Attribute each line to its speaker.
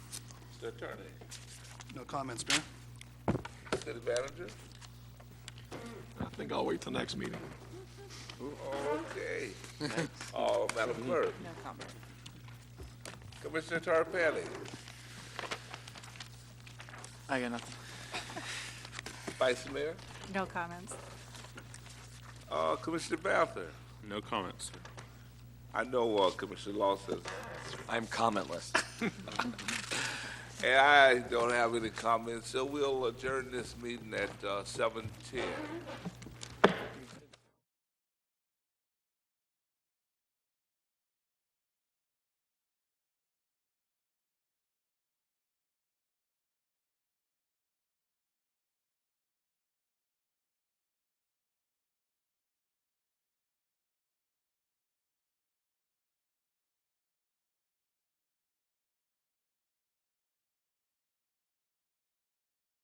Speaker 1: The attorney,
Speaker 2: No comments, Mayor.
Speaker 1: city manager?
Speaker 3: I think I'll wait till next meeting.
Speaker 1: Okay. Oh, Madam Clerk.
Speaker 4: No comment.
Speaker 1: Commissioner Tarpelli,
Speaker 5: I got nothing.
Speaker 1: Vice Mayor,
Speaker 4: No comments.
Speaker 1: uh, Commissioner Banther.
Speaker 6: No comments, sir.
Speaker 1: I know, uh, Commissioner Lawson,
Speaker 5: I'm commentless.
Speaker 1: and I don't have any comments, so we'll adjourn this meeting at, uh, seven ten.